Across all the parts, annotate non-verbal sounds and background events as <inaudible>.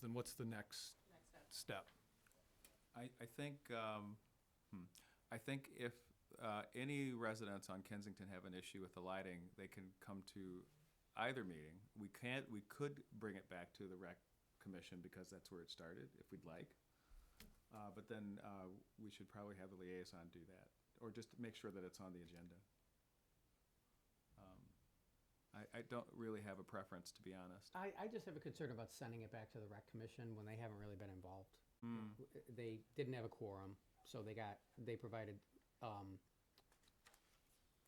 then what's the next step? I, I think, um, hmm, I think if, uh, any residents on Kensington have an issue with the lighting, they can come to either meeting. We can't, we could bring it back to the rec commission because that's where it started, if we'd like. Uh, but then, uh, we should probably have the liaison do that, or just make sure that it's on the agenda. Um, I, I don't really have a preference, to be honest. I, I just have a concern about sending it back to the rec commission when they haven't really been involved. W- uh, They didn't have a quorum, so they got, they provided, um,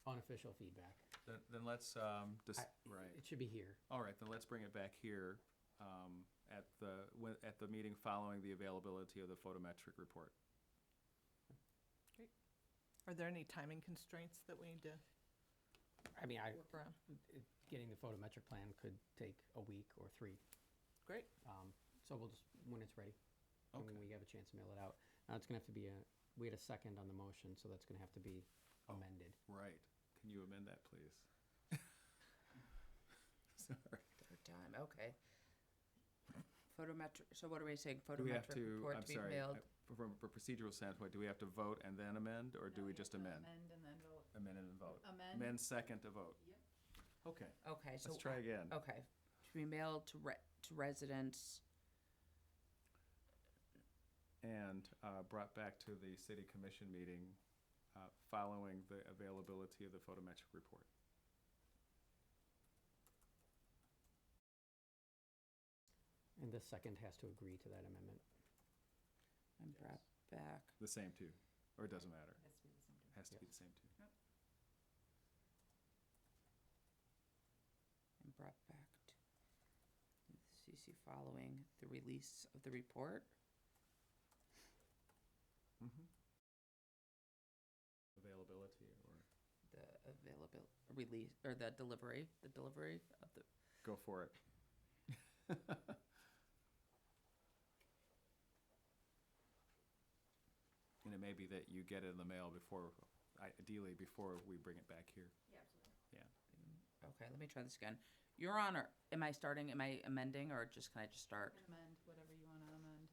unofficial feedback. Then, then let's, um, dis- I- right. It should be here. All right, then let's bring it back here um, at the, when- at the meeting following the availability of the photometric report. Are there any timing constraints that we need to I mean, I, work around? it- getting the photometric plan could take a week or three. Great. Um, so we'll just, when it's ready, and when Okay. we have a chance to mail it out. Now, it's gonna have to be a, we had a second on the motion, so that's gonna have to be amended. Right. Can you amend that, please? <laughs> Sorry. Third time, okay. Photometric, so what are we saying? Do we have Photometric to, report I'm to be sorry, I- mailed? from a procedural standpoint, do we have to vote and then amend, or do No, we you just have to amend? Amend and then vote. Amend and vote. Amend. Amend second to vote. Yep. Okay. Okay, so. oh. try again. Okay, to be mailed to re, to residents, And uh, brought back to the city commission meeting uh, following the availability of the photometric report. And the second has to agree to that amendment. and brought back. The same two, or it doesn't matter. Has to be the same time. Has to be the same two. and brought back to the CC following the release of the report. Mm-hmm. Availability or? The available release or the delivery, the delivery of the Go for it. <laughs> And it may be that you get it in the mail before, ideally before we bring it back here. Yeah, absolutely. Yeah. okay. Let me try this again. Your Honor, am I starting? Am I amending, or just can I just start? Amend whatever you want to amend,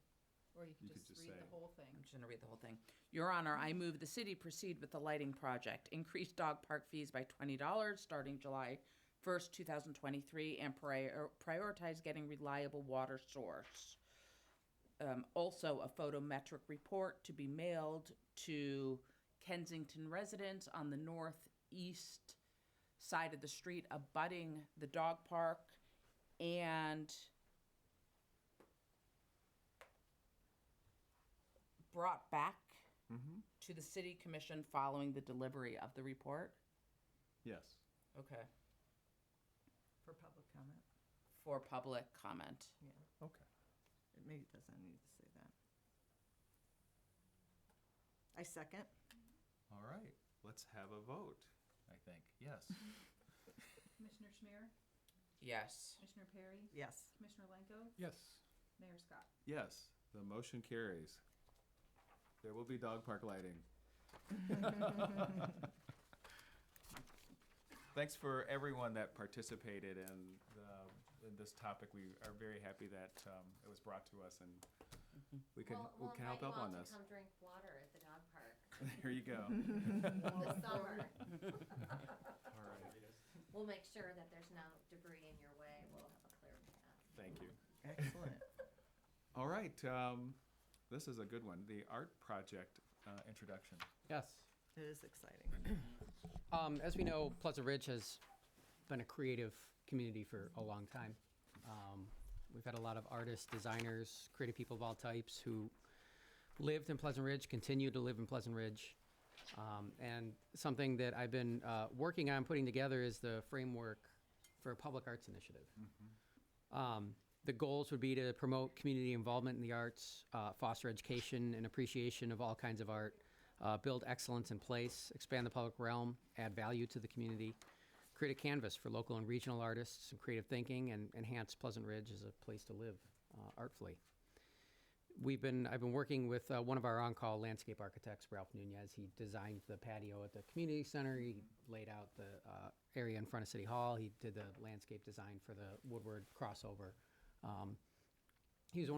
or you can You could just just read the say- whole I'm thing. just going to read the whole thing. Your Honor, I move the city proceed with the lighting project, increase dog park fees by $20 starting July 1st, 2023, and prior- prioritize getting reliable water source. Um, also, a photometric report to be mailed to Kensington residents on the northeast side of the street abutting the dog park and brought back Mm-hmm. to the city commission following the delivery of the report. Yes. Okay. For public comment? For public comment. Yeah, Okay. it maybe doesn't need to say that. I second. All right. Let's have a vote, I think. Yes. Commissioner Schmier, Yes. Commissioner Perry, Yes. Commissioner Lenko, Yes. Mayor Scott. Yes, the motion carries. There will be dog park lighting. Thanks for everyone that participated in, the, in this topic. We are very happy that um, it was brought to us and we can, We'll- we we'll can help invite out you all on to this. Come drink water at the dog park <laughs> There you go. this summer. All right. We'll make sure that there's no debris in your way. We'll have a clear path. Thank you. Excellent. All right. Um, this is a good one. The art project uh, introduction. Yes. It is exciting. Um, as we know, Pleasant Ridge has been a creative community for a long time. Um, we've had a lot of artists, designers, creative people of all types who lived in Pleasant Ridge, continue to live in Pleasant Ridge. Um, and something that I've been uh, working on putting together is the framework for a public arts initiative. Um, the goals would be to promote community involvement in the arts, uh, foster education and appreciation of all kinds of art, uh, build excellence in place, expand the public realm, add value to the community, create a canvas for local and regional artists and creative thinking, and enhance Pleasant Ridge as a place to live uh, artfully. We've been I've been working with uh, one of our on-call landscape architects, Ralph Nunez. He designed the patio at the community center. He laid out the uh, area in front of City Hall. He did the landscape design for the Woodward crossover. Um, he was one